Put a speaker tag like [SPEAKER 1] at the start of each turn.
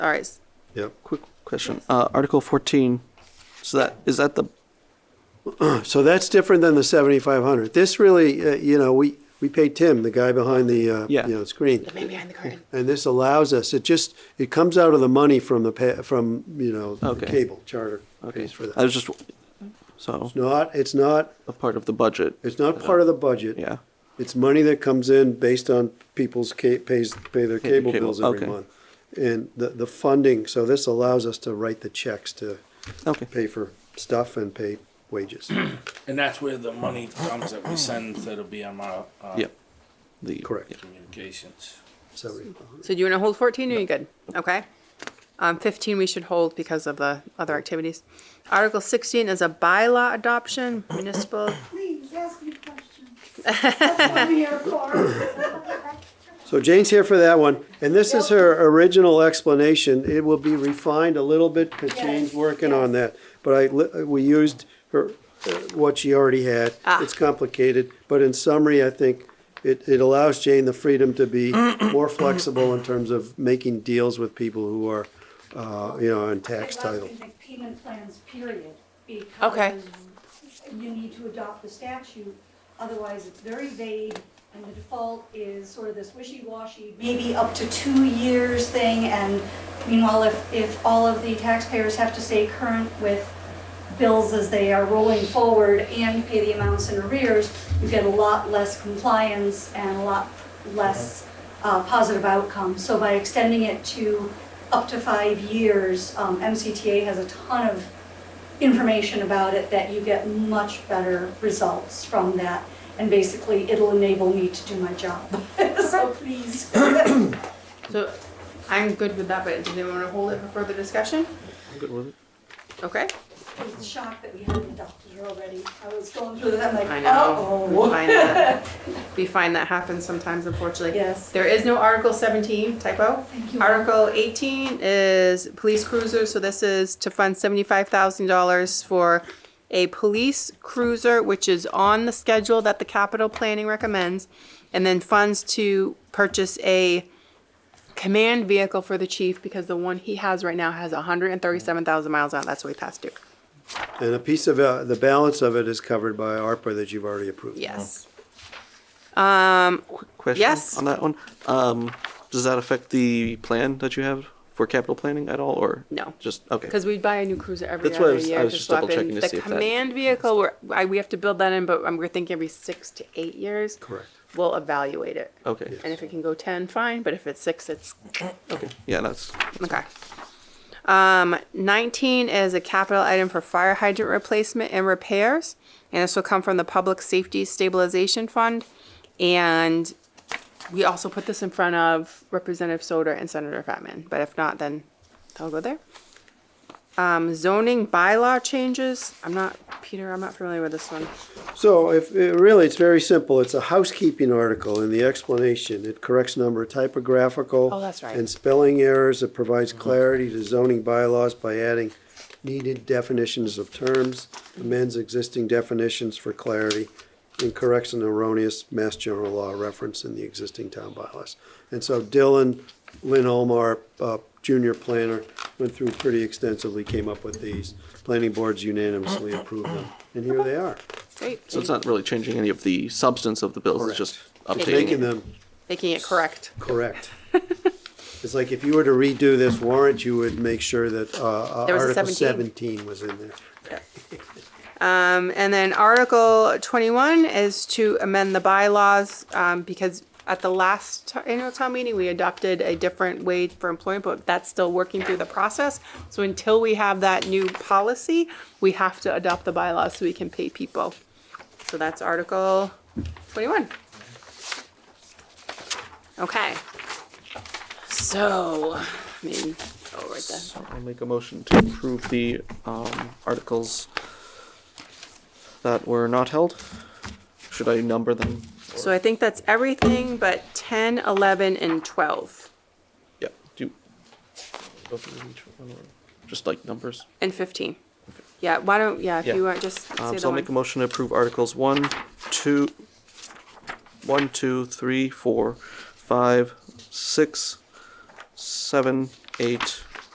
[SPEAKER 1] All right.
[SPEAKER 2] Yep.
[SPEAKER 3] Quick question. Uh, Article 14, so that, is that the,
[SPEAKER 2] So that's different than the 7,500. This really, uh, you know, we, we paid Tim, the guy behind the, uh, you
[SPEAKER 3] Yeah.
[SPEAKER 2] know, screen.
[SPEAKER 1] The man behind the curtain.
[SPEAKER 2] And this allows us, it just, it comes out of the money from the, pa- from, you know, the
[SPEAKER 3] Okay.
[SPEAKER 2] cable charter
[SPEAKER 3] okay,
[SPEAKER 2] pays for
[SPEAKER 3] I
[SPEAKER 2] that.
[SPEAKER 3] was just, so,
[SPEAKER 2] It's not, it's not,
[SPEAKER 3] a part of the budget,
[SPEAKER 2] it's not part of the budget.
[SPEAKER 3] yeah.
[SPEAKER 2] It's money that comes in based on people's ca- pays, pay their
[SPEAKER 3] their
[SPEAKER 2] cable
[SPEAKER 3] cable,
[SPEAKER 2] bills every
[SPEAKER 3] okay.
[SPEAKER 2] month. And the, the funding, so this allows us to write the checks to
[SPEAKER 3] Okay,
[SPEAKER 2] pay for stuff and pay wages.
[SPEAKER 4] And that's where the money comes that we send to the BMR uh,
[SPEAKER 3] yeah. The-
[SPEAKER 2] Correct.
[SPEAKER 4] communications.
[SPEAKER 2] Seventy.
[SPEAKER 1] So do you want to hold 14 or you good? Okay. Um, 15 we should hold because of the other activities. Article 16 is a bylaw adoption, municipal.
[SPEAKER 5] Please, ask me questions. That's what I'm here for.
[SPEAKER 2] So Jane's here for that one, and this is her original explanation. It will be refined a little bit, because Jane's working on that. But I, li- uh, we used her, uh, what she already had. It's complicated, but in summary, I think it, it allows Jane the freedom to be more flexible in terms of making deals with people who are, uh, you know, on tax title.
[SPEAKER 5] They make payment plans, period,
[SPEAKER 1] Okay.
[SPEAKER 5] because you need to adopt the statute, otherwise it's very vague, and the default is sort of this wishy-washy, maybe up to two years thing, and meanwhile, if, if all of the taxpayers have to stay current with bills as they are rolling forward, and you pay the amounts in arrears, you get a lot less compliance and a lot less uh, positive outcomes. So by extending it to up to five years, um, MCTA has a ton of information about it that you get much better results from that. And basically, it'll enable me to do my job. So please.
[SPEAKER 1] So I'm good with that, but does anyone want to hold it for further discussion?
[SPEAKER 3] I'm good with it.
[SPEAKER 1] Okay.
[SPEAKER 5] It's a shock that we haven't adopted it already. I was going through that, I'm like,
[SPEAKER 1] I know. We
[SPEAKER 5] uh-oh.
[SPEAKER 1] find that, we find that happens sometimes, unfortunately.
[SPEAKER 5] Yes.
[SPEAKER 1] There is no Article 17 typo.
[SPEAKER 5] Thank you.
[SPEAKER 1] Article 18 is police cruiser, so this is to fund $75,000 for a police cruiser, which is on the schedule that the capital planning recommends, and then funds to purchase a command vehicle for the chief, because the one he has right now has 137,000 miles on it, that's what we passed due.
[SPEAKER 2] And a piece of, uh, the balance of it is covered by ARPA that you've already approved.
[SPEAKER 1] Yes.
[SPEAKER 3] Quick question
[SPEAKER 1] Yes.
[SPEAKER 3] on that one. Um, does that affect the plan that you have for capital planning at all, or?
[SPEAKER 1] No.
[SPEAKER 3] Just, okay.
[SPEAKER 1] Because we buy a new cruiser every
[SPEAKER 3] That's why I
[SPEAKER 1] other
[SPEAKER 3] was- I
[SPEAKER 1] year
[SPEAKER 3] was
[SPEAKER 1] to
[SPEAKER 3] just
[SPEAKER 1] swap in.
[SPEAKER 3] double-checking to
[SPEAKER 1] The
[SPEAKER 3] see if that-
[SPEAKER 1] command vehicle, we're, I, we have to build that in, but um, we're thinking every six to eight years.
[SPEAKER 2] Correct.
[SPEAKER 1] We'll evaluate it.
[SPEAKER 3] Okay,
[SPEAKER 1] And if it can go ten, fine, but if it's six, it's,
[SPEAKER 3] okay, yeah, that's,
[SPEAKER 1] okay. Um, nineteen is a capital item for fire hydrant replacement and repairs. And this will come from the Public Safety Stabilization Fund. And we also put this in front of Representative Soder and Senator Fatman, but if not, then I'll go there. Um, zoning bylaw changes, I'm not, Peter, I'm not familiar with this one.
[SPEAKER 2] So if, it- really, it's very simple. It's a housekeeping article in the explanation. It corrects a number of typographical.
[SPEAKER 1] Oh, that's right. Mm-hmm.
[SPEAKER 2] And spelling errors. It provides clarity to zoning bylaws by adding needed definitions of terms, amends existing definitions for clarity, and corrects an erroneous Mass General Law reference in the existing town bylaws. And so Dylan, Lynn Olmar, uh, junior planner, went through pretty extensively, came up with these. Planning boards unanimously approved them, and here they are.
[SPEAKER 1] Great.
[SPEAKER 3] so it's not really changing any of the substance of the bills,
[SPEAKER 2] Correct.
[SPEAKER 3] it's just
[SPEAKER 2] making
[SPEAKER 3] updating. it.
[SPEAKER 2] them
[SPEAKER 1] Making it correct.
[SPEAKER 2] correct. It's like if you were to redo this warrant, you would make sure that uh, uh,
[SPEAKER 1] There was a
[SPEAKER 2] Article
[SPEAKER 1] 17.
[SPEAKER 2] 17 was in there.
[SPEAKER 1] Um, and then Article twenty-one is to amend the bylaws, um, because at the last t- annual town meeting, we adopted a different wage for employment, but that's still working through the process. So until we have that new policy, we have to adopt the bylaws so we can pay people. So that's Article twenty-one. Okay. So, I mean, oh, right there.
[SPEAKER 3] So I'll make a motion to approve the, um, articles that were not held. Should I number them?
[SPEAKER 1] So I think that's everything but 10, 11, and 12,
[SPEAKER 3] Yeah, do you? go through each one or Just like numbers?
[SPEAKER 1] and 15. Yeah, why don't, yeah, if
[SPEAKER 3] Yeah.
[SPEAKER 1] you want, just say
[SPEAKER 3] Um,
[SPEAKER 1] the
[SPEAKER 3] so I'll make a
[SPEAKER 1] one.
[SPEAKER 3] motion to approve Articles one, two, one, two, three, four, five, six, seven, eight,